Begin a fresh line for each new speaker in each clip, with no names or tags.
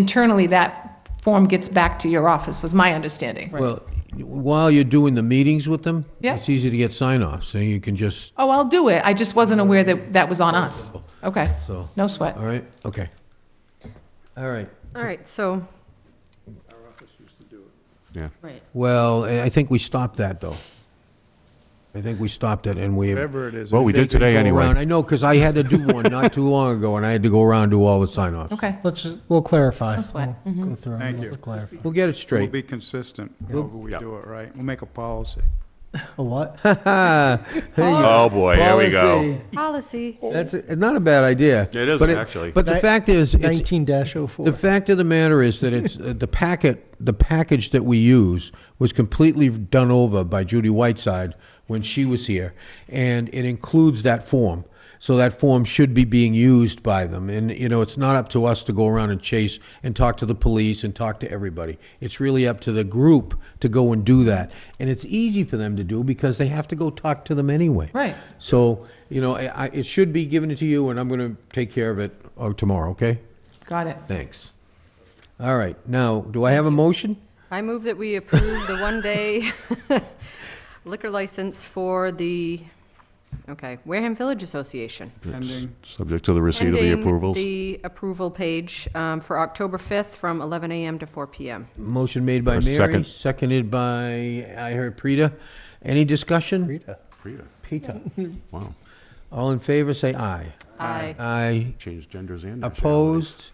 internally, that form gets back to your office, was my understanding.
Well, while you're doing the meetings with them,
Yeah.
it's easy to get sign-offs, so you can just,
Oh, I'll do it, I just wasn't aware that that was on us. Okay,
so,
no sweat.
all right, okay. All right,
All right, so.
Yeah.
Right.
well, I I think we stopped that, though. I think we stopped it, and we...
Whatever it is.
Well,
if
we
they
did
could
today
go
anyway.
around- I know, because I had to do one not too long ago, and I had to go around and do all the sign-offs.
Okay,
Let's, just- we'll clarify.
No sweat. Mm-hmm.
We'll go through and
Thank
we'll
you.
clarify.
We'll get it
We'll
straight.
be consistent however we do it, right? We'll make a policy.
A what?
Oh, boy, here we go.
uh, Policy
Policy.
That's, it's not a bad idea.
It isn't,
But
actually.
But the
Ni-
fact is, it's,
Nineteen dash oh four.
The fact of the matter is that it's, uh, the packet, the package that we use was completely done over by Judy Whiteside when she was here, and it includes that form. So that form should be being used by them, and, you know, it's not up to us to go around and chase and talk to the police and talk to everybody. It's really up to the group to go and do that, and it's easy for them to do because they have to go talk to them anyway.
Right.
So, you know, I, I, it should be given to you, and I'm gonna take care of it, uh, tomorrow, okay?
got it.
Thanks. All right, now, do I have a motion?
I move that we approve the one-day liquor license for the, okay, Wareham Village Association.
Pending.
Subject to the receipt of the
Pending
approvals.
The approval page um, for October 5th from 11 a.m. to 4 p.m.
Motion made by
For a
Mary,
second.
seconded by, I heard Preta. Any discussion?
Rita,
Preta.
Wow,
All in favor, say aye.
Aye.
Aye.
changed genders and. nationalities.
Opposed?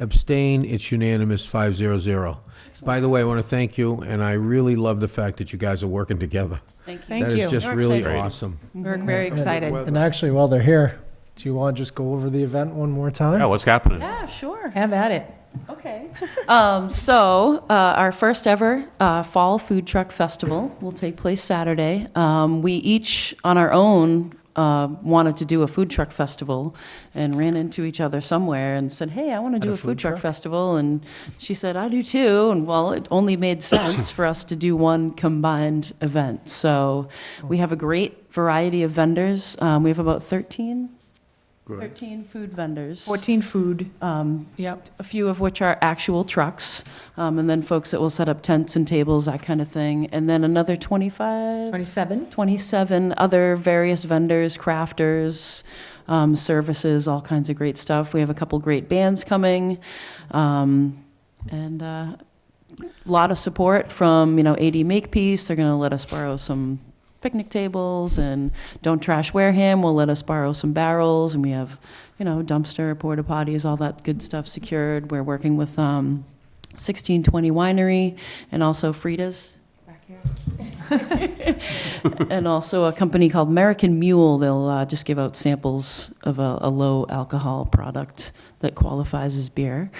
Abstain? It's unanimous, five zero zero. By the way, I want to thank you, and I really love the fact that you guys are working together.
Thank
Thank
That
you.
is just
We're
really
excited.
awesome.
We're very excited.
And actually, while they're here, do you want to just go over the event one more time?
Yeah, what's happening?
Yeah, sure.
Have at it.
Okay. Um, so, uh, our first ever uh, Fall Food Truck Festival will take place Saturday. Um, we each, on our own, uh, wanted to do a food truck festival and ran into each other somewhere and said, Hey, I want to do a, food truck, festival. And she said, I do too. And well, it only made sense for us to do one combined event. So, we have a great variety of vendors. Um, we have about 13, 13 food vendors
14 food.
um,
Yep.
s- A few of which are actual trucks, um, and then folks that will set up tents and tables, that kind of thing. And then another 25,
27?
27 other various vendors, crafters, um, services, all kinds of great stuff. We have a couple great bands coming, um, and uh, a lot of support from, you know, AD Makepeace. They're going to let us borrow some picnic tables, and Don't Trash Wareham will let us borrow some barrels, and we have, you know, dumpster, porta potties, all that good stuff secured. We're working with um, 1620 Winery and also Frida's and also a company called American Mule. They'll uh, just give out samples of a, a low alcohol product that qualifies as beer.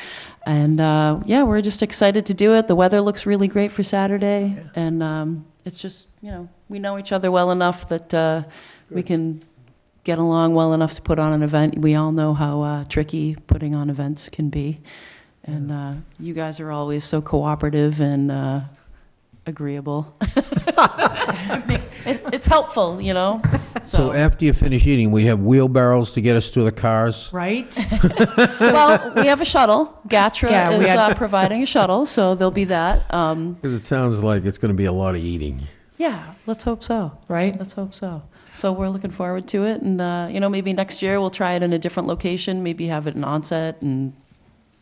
And uh, yeah, we're just excited to do it. The weather looks really great for Saturday, and um, it's just you know we know each other well enough that uh, we can get along well enough to put on an event. We all know how uh, tricky putting on events can be, and uh, you guys are always so cooperative and. Uh, agreeable. it's, it's helpful, you know.
So after you finish eating, we have wheelbarrows to get us to the cars.
Right?
well, we have a shuttle. Gatra
Yeah, we
is
had-
uh, providing a shuttle, so there'll be that. Um,
Because it sounds like it's going to be a lot of eating.
yeah, let's hope so.
Right?
Let's hope so. So we're looking forward to it, and uh, you know, maybe next year we'll try it in a different location. Maybe have it in onset and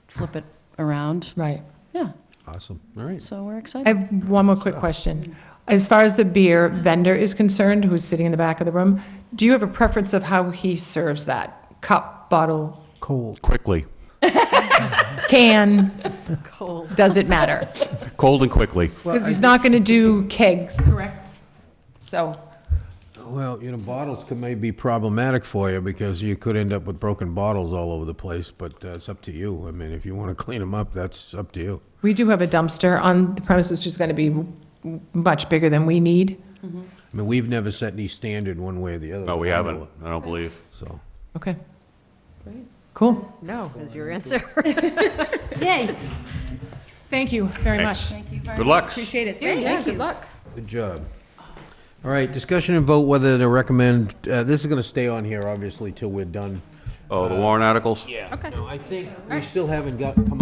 flip it around.
Right.
Yeah.
Awesome, all right.
So we're excited.
I have one more quick question. As far as the beer vendor is concerned, who's sitting in the back of the room, do you have a preference of how he serves that? Cup, bottle,
Cold.
Quickly,
can? Cold. Does it matter?
cold and quickly.
Because he's not going to do kegs, correct? So,
Well, you know, bottles could may be problematic for you because you could end up with broken bottles all over the place, but uh, it's up to you. I mean, if you want to clean them up, that's up to you.
we do have a dumpster on the premises, which is going to be m- much bigger than we need.
I mean, we've never set any standard one way or the other.
No,
I
we
know
haven't,
of,
I don't believe.
So,
Okay. Cool.
No, is your answer.
Yay. Thank you very much.
Thanks. Good luck.
Appreciate it.
Yeah, good luck.
good job. All right, discussion and vote whether to recommend, uh, this is going to stay on here, obviously, till we're done.
Oh, the Warren articles?
No, I think we still haven't got, come